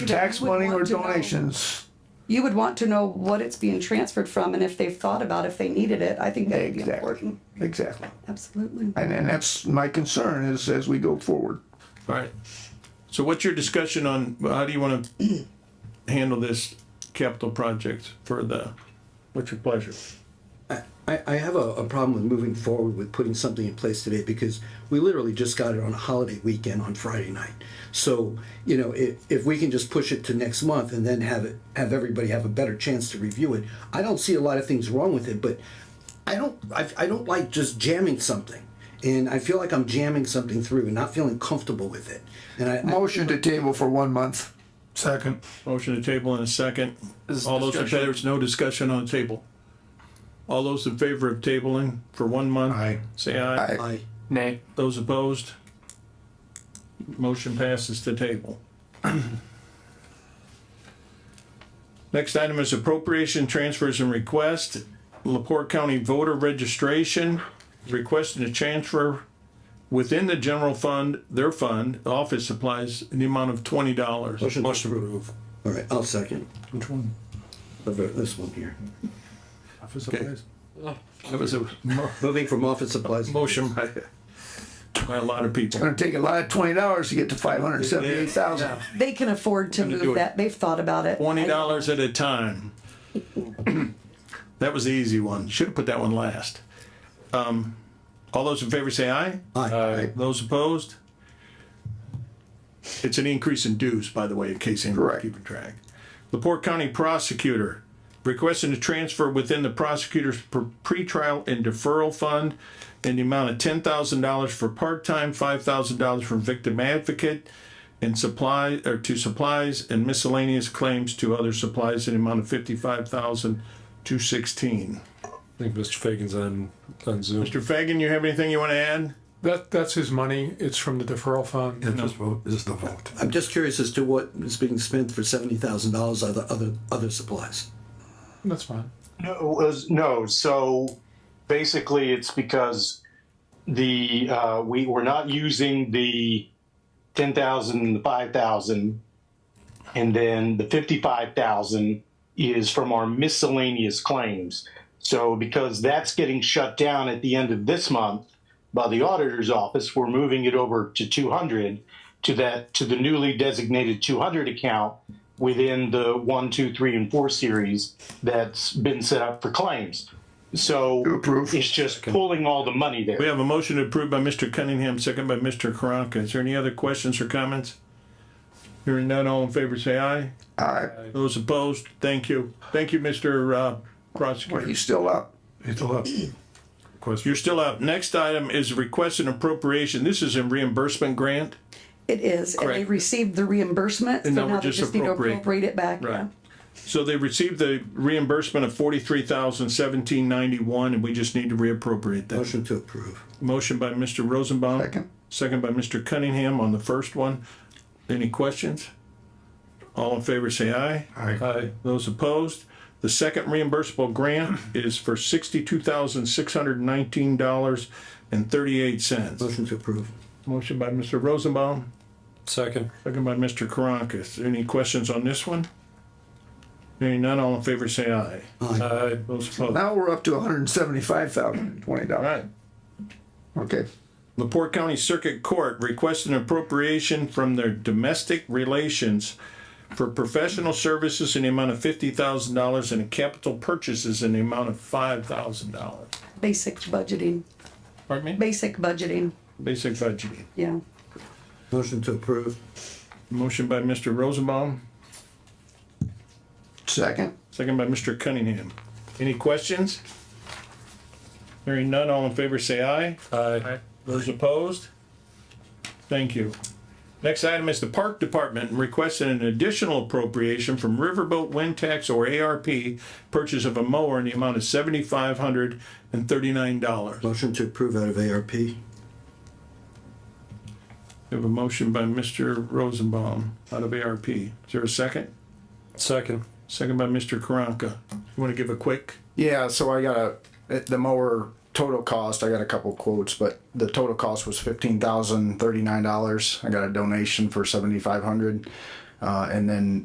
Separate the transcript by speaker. Speaker 1: tax
Speaker 2: would
Speaker 1: money or
Speaker 2: want to know.
Speaker 1: donations.
Speaker 2: You would want to know what it's being transferred from and if they've thought about if they needed it. I think that would be
Speaker 1: Exactly,
Speaker 2: important.
Speaker 1: exactly.
Speaker 2: Absolutely.
Speaker 1: And, and that's my concern is as we go forward.
Speaker 3: All right. So what's your discussion on, how do you want to handle this capital project for the, what's your pleasure?
Speaker 4: I, I have a, a problem with moving forward with putting something in place today because we literally just got it on a holiday weekend on Friday night. So, you know, if, if we can just push it to next month and then have it, have everybody have a better chance to review it, I don't see a lot of things wrong with it, but I don't, I, I don't like just jamming something. And I feel like I'm jamming something through and not feeling comfortable with it. And I, I
Speaker 1: Motion to table for one month.
Speaker 5: Second.
Speaker 3: Motion to table in a second.
Speaker 5: Is
Speaker 3: All those in
Speaker 5: discussion-
Speaker 3: favor, there's no discussion on the table. All those in favor of tabling for one month?
Speaker 5: Aye.
Speaker 3: Say aye.
Speaker 1: Aye.
Speaker 4: I,
Speaker 5: Nay.
Speaker 3: Those opposed? Motion passes to table. Next item is appropriation transfers and request. Laporte County voter registration, requesting a transfer within the general fund, their fund, office supplies, in the amount of twenty dollars.
Speaker 4: Motion to approve. all right, I'll second
Speaker 5: Which one?
Speaker 4: the ver- this one here.
Speaker 5: Office
Speaker 3: supplies? That was a mo-
Speaker 4: Moving from office supplies.
Speaker 3: motion by, by a lot of people.
Speaker 1: Gonna take a lot of twenty dollars to get to five hundred and seventy-eight thousand.
Speaker 2: They can afford to
Speaker 3: do it.
Speaker 2: move that. They've thought about it.
Speaker 3: Twenty dollars at a time. That was the easy one. Should have put that one last. Um, all those in favor say aye.
Speaker 4: Aye.
Speaker 3: Those opposed? It's an increase in dues, by the way, in case anyone's
Speaker 1: Correct.
Speaker 3: keeping track. Laporte County Prosecutor requesting a transfer within the prosecutor's pr- pretrial and deferral fund in the amount of ten thousand dollars for part-time, five thousand dollars for victim advocate, and supply, or to supplies and miscellaneous claims to other supplies in the amount of fifty-five thousand two sixteen.
Speaker 6: I think Mr. Fagan's on, on Zoom.
Speaker 3: Mr. Fagan, you have anything you want to add?
Speaker 6: That, that's his money. It's from the deferral fund.
Speaker 5: This vote is the vote.
Speaker 4: I'm just curious as to what is being spent for seventy thousand dollars other other other supplies.
Speaker 6: That's fine.
Speaker 7: No, it was, no. So basically, it's because the uh, we we're not using the ten thousand and the five thousand, and then the fifty-five thousand is from our miscellaneous claims. So because that's getting shut down at the end of this month by the auditor's office, we're moving it over to two hundred to that to the newly designated two hundred account within the one, two, three, and four series that's been set up for claims. So
Speaker 1: approve.
Speaker 7: it's just pulling all the money there.
Speaker 3: We have a motion approved by Mr. Cunningham, second by Mr. Karanka. Is there any other questions or comments? Hearing none, all in favor say aye.
Speaker 1: Aye.
Speaker 3: Those opposed, thank you. Thank you, Mr. uh, Prosecutor.
Speaker 1: He's still up.
Speaker 5: It's all up.
Speaker 3: You're still up. Next item is request and appropriation. This is a reimbursement grant.
Speaker 2: It is. And they
Speaker 3: Correct.
Speaker 2: received the reimbursement.
Speaker 3: And
Speaker 2: so
Speaker 3: now we're
Speaker 2: they
Speaker 3: just
Speaker 2: need to
Speaker 3: appropriate.
Speaker 2: appropriate it back. yeah.
Speaker 3: So they received the reimbursement of forty-three thousand seventeen ninety-one, and we just need to reappropriate that.
Speaker 4: Motion to approve.
Speaker 3: Motion by Mr. Rosenbaum.
Speaker 1: Second.
Speaker 3: Second by Mr. Cunningham on the first one. Any questions? All in favor, say aye.
Speaker 5: Aye.
Speaker 3: Those opposed? The second reimbursable grant is for sixty-two thousand, six hundred and nineteen dollars and thirty-eight cents.
Speaker 4: Motion to approve.
Speaker 3: Motion by Mr. Rosenbaum,
Speaker 6: Second.
Speaker 3: second by Mr. Karankas. Any questions on this one? Hearing none, all in favor, say aye.
Speaker 6: Aye.
Speaker 3: Those opposed? All
Speaker 1: Now we're up to $175,020. dollars.
Speaker 3: right.
Speaker 1: Okay.
Speaker 3: Laporte County Circuit Court requests an appropriation from their domestic relations for professional services in the amount of fifty thousand dollars and capital purchases in the amount of five thousand dollars.
Speaker 2: Basic budgeting.
Speaker 3: Pardon me?
Speaker 2: Basic budgeting.
Speaker 3: Basic budgeting.
Speaker 2: Yeah.
Speaker 4: Motion to approve.
Speaker 3: Motion by Mr. Rosenbaum,
Speaker 1: Second.
Speaker 3: second by Mr. Cunningham. Any questions? Hearing none, all in favor say aye.
Speaker 6: Aye.
Speaker 3: Those opposed? Thank you. Next item is the Park Department requesting an additional appropriation from Riverboat Wind Tax or ARP purchase of a mower in the amount of seventy-five hundred and thirty-nine dollars.
Speaker 4: Motion to approve out of ARP.
Speaker 3: We have a motion by Mr. Rosenbaum out of ARP. Is there a second?
Speaker 6: Second.
Speaker 3: Second by Mr. Karanka. You want to give a quick?
Speaker 8: Yeah, so I got a the mower total cost. I got a couple quotes, but the total cost was fifteen thousand thirty nine dollars. I got a donation for seventy five hundred.
Speaker 1: Uh, and then